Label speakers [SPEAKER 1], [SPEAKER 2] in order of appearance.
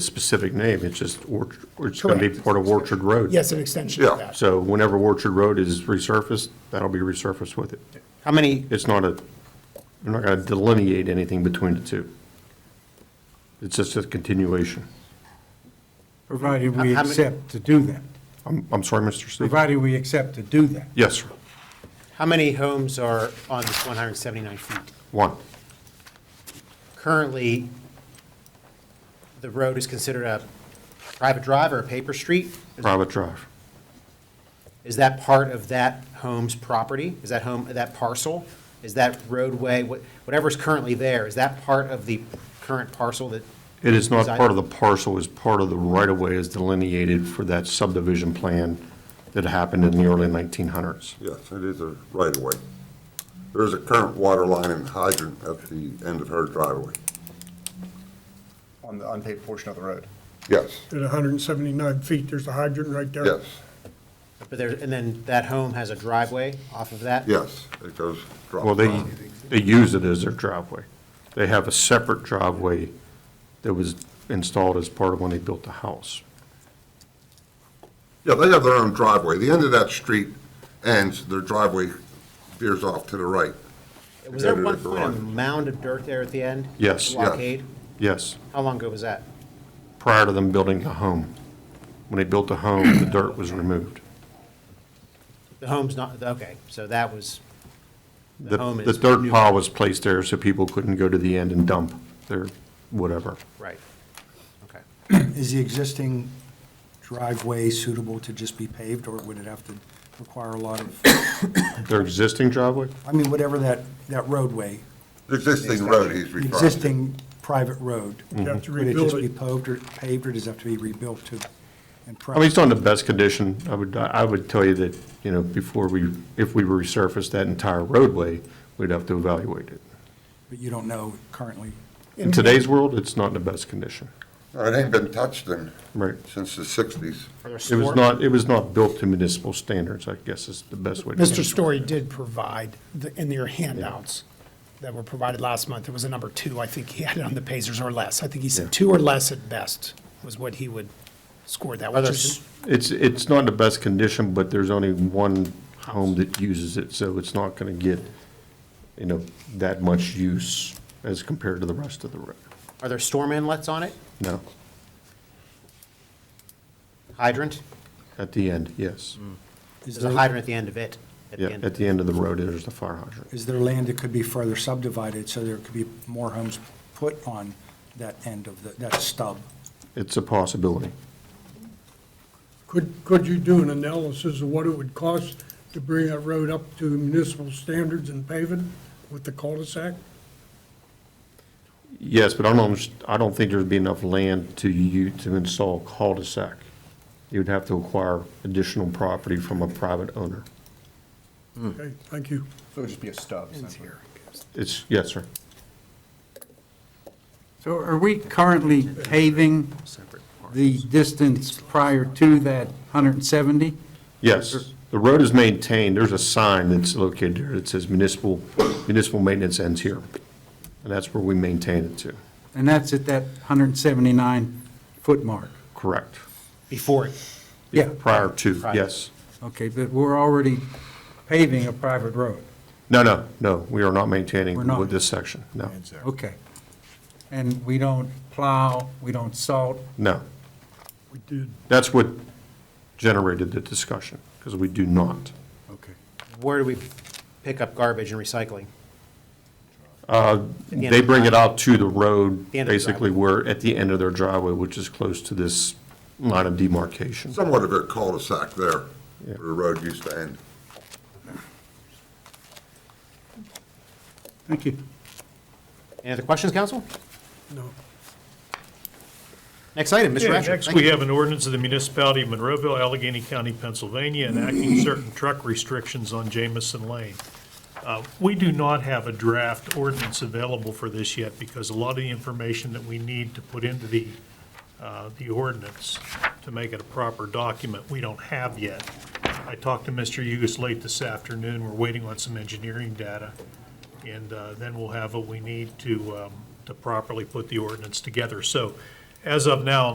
[SPEAKER 1] specific name, it's just, Orch- it's going to be
[SPEAKER 2] Correct.
[SPEAKER 1] part of Orchard Road.
[SPEAKER 2] Yes, an extension
[SPEAKER 3] Yeah.
[SPEAKER 2] of that.
[SPEAKER 1] So whenever Orchard Road is resurfaced, that'll be resurfaced with it.
[SPEAKER 4] How many,
[SPEAKER 1] It's not a, I'm not going to delineate anything between the two. It's just a continuation.
[SPEAKER 5] Provided we
[SPEAKER 4] How- how many-
[SPEAKER 5] accept to do that.
[SPEAKER 1] I'm, I'm sorry, Mr. Stevens?
[SPEAKER 5] Provided we accept to do that.
[SPEAKER 1] Yes, sir.
[SPEAKER 4] how many homes are on this 179 feet?
[SPEAKER 1] One.
[SPEAKER 4] Currently, the road is considered a private drive or a paper street? Is-
[SPEAKER 1] Private drive.
[SPEAKER 4] Is that part of that home's property? Is that home, that parcel? Is that roadway, what- whatever's currently there, is that part of the current parcel that?
[SPEAKER 1] It is not
[SPEAKER 4] Is that-
[SPEAKER 1] part of the parcel, it's part of the right-of-way as delineated for that subdivision plan that happened in the early 1900s.
[SPEAKER 3] Yes, it is a right-of-way. There is a current water line and hydrant at the end of her driveway.
[SPEAKER 6] on the unpaved portion of the road.
[SPEAKER 3] Yes,
[SPEAKER 2] At 179 feet, there's a hydrant right there.
[SPEAKER 3] yes,
[SPEAKER 4] But there, and then that home has a driveway off of that?
[SPEAKER 3] yes, it goes. drop
[SPEAKER 1] Well, they,
[SPEAKER 3] down.
[SPEAKER 1] they use it as their driveway. They have a separate driveway that was installed as part of when they built the house.
[SPEAKER 3] Yeah, they have their own driveway. The end of that street ends, their driveway veers off to the right.
[SPEAKER 4] Was there
[SPEAKER 3] Yeah,
[SPEAKER 4] one
[SPEAKER 3] the
[SPEAKER 4] point a
[SPEAKER 3] garage.
[SPEAKER 4] mound of dirt there at the end?
[SPEAKER 1] Yes. Yeah.
[SPEAKER 4] Blockade?
[SPEAKER 1] Yes,
[SPEAKER 4] How long ago was that?
[SPEAKER 1] prior to them building the home. When they built the home, the dirt was removed.
[SPEAKER 4] The home's not, okay, so that was, the
[SPEAKER 1] The,
[SPEAKER 4] home
[SPEAKER 1] the
[SPEAKER 4] is.
[SPEAKER 1] dirt
[SPEAKER 4] new-
[SPEAKER 1] pile was placed there so people couldn't go to the end and dump their whatever.
[SPEAKER 4] Right, okay.
[SPEAKER 7] Is the existing driveway suitable to just be paved, or would it have to require a lot of,
[SPEAKER 1] Their existing driveway?
[SPEAKER 7] I mean, whatever that, that roadway,
[SPEAKER 3] The Existing road he's
[SPEAKER 7] the
[SPEAKER 3] referring to.
[SPEAKER 7] existing private road?
[SPEAKER 2] You have to
[SPEAKER 7] Would it just
[SPEAKER 2] rebuild
[SPEAKER 7] be
[SPEAKER 2] it.
[SPEAKER 7] paved or, paved, or does it have to be rebuilt to? and
[SPEAKER 1] I mean, it's
[SPEAKER 7] prep?
[SPEAKER 1] not in the best condition. I would, I would tell you that, you know, before we, if we resurfaced that entire roadway, we'd have to evaluate it.
[SPEAKER 7] But you don't know currently.
[SPEAKER 1] In today's world, it's not in the best condition.
[SPEAKER 3] No, It ain't been touched in.
[SPEAKER 1] Right.
[SPEAKER 3] Since the sixties.
[SPEAKER 4] Are there
[SPEAKER 1] It was
[SPEAKER 4] store-
[SPEAKER 1] not, it was not built to municipal standards, I guess is the best way to.
[SPEAKER 2] Mr. Story did provide, the- in your handouts that were provided last month, there was a number two, I think he had it on the Pacers or less. I think he
[SPEAKER 1] Yeah.
[SPEAKER 2] said two or less at best was what he would score that, which
[SPEAKER 4] Others-
[SPEAKER 2] is
[SPEAKER 1] It's, it's not in the best condition, but there's only one home that uses it, so it's not going to get, you know, that much use as compared to the rest of the road.
[SPEAKER 4] Are there storm inlets on it?
[SPEAKER 1] No,
[SPEAKER 4] Hydrant?
[SPEAKER 1] at the end, yes.
[SPEAKER 7] Is
[SPEAKER 4] There's a
[SPEAKER 7] there,
[SPEAKER 4] hydrant at the end of it. Mm, at the
[SPEAKER 1] Yeah,
[SPEAKER 4] end.
[SPEAKER 1] at the end of the road, there's the fire hydrant.
[SPEAKER 7] is there land that could be further subdivided, so there could be more homes put on that end of the, that stub?
[SPEAKER 1] It's a possibility.
[SPEAKER 8] Could, could you do an analysis of what it would cost to bring that road up to municipal standards and pave it with the cul-de-sac?
[SPEAKER 1] Yes, but I don't, underst- I don't think there'd be enough land to you, to install cul-de-sac. You'd have to acquire additional property from a private owner.
[SPEAKER 3] Hmm.
[SPEAKER 8] Okay, thank you.
[SPEAKER 6] So it would just be a stub, essentially.
[SPEAKER 1] It's, yes, sir.
[SPEAKER 5] So are we currently paving the distance prior to that 170?
[SPEAKER 1] Yes, the road is maintained, there's a sign that's located there that says municipal, municipal maintenance ends here. And that's where we maintain it to,
[SPEAKER 5] And that's at that 179-foot mark?
[SPEAKER 1] correct.
[SPEAKER 4] Before it.
[SPEAKER 5] Yeah,
[SPEAKER 1] Prior to,
[SPEAKER 4] Right.
[SPEAKER 1] yes.
[SPEAKER 5] okay, but we're already paving a private road,
[SPEAKER 1] No, no, no, we are not maintaining
[SPEAKER 5] We're not.
[SPEAKER 1] with this section, no,
[SPEAKER 5] okay. And we don't plow, we don't salt,
[SPEAKER 1] no.
[SPEAKER 8] We did.
[SPEAKER 1] That's what generated the discussion, because we do not.
[SPEAKER 5] okay.
[SPEAKER 4] Where do we pick up garbage and recycling? the end
[SPEAKER 1] They
[SPEAKER 4] of the
[SPEAKER 1] bring it out to the road,
[SPEAKER 4] The end of the
[SPEAKER 1] basically where, at the end of their driveway, which is close to this line of demarcation.
[SPEAKER 3] Somewhat of a cul-de-sac there,
[SPEAKER 1] Yeah.
[SPEAKER 3] where the road used to end.
[SPEAKER 5] Thank you.
[SPEAKER 4] Any other questions, council?
[SPEAKER 8] No.
[SPEAKER 4] Next item, Mr.
[SPEAKER 9] Yeah,
[SPEAKER 4] Asher.
[SPEAKER 9] Next,
[SPEAKER 4] thank you.
[SPEAKER 9] we have an ordinance of the municipality of Monroeville, Allegheny County, Pennsylvania, enacting certain truck restrictions on Jamison Lane. Uh, We do not have a draft ordinance available for this yet because a lot of the information that we need to put into the, uh, the ordinance to make it a proper document, we don't have yet. I talked to Mr. Hughes late this afternoon. We're waiting on some engineering data. And uh, then we'll have what we need to, um, to properly put the ordinance together. So as of now,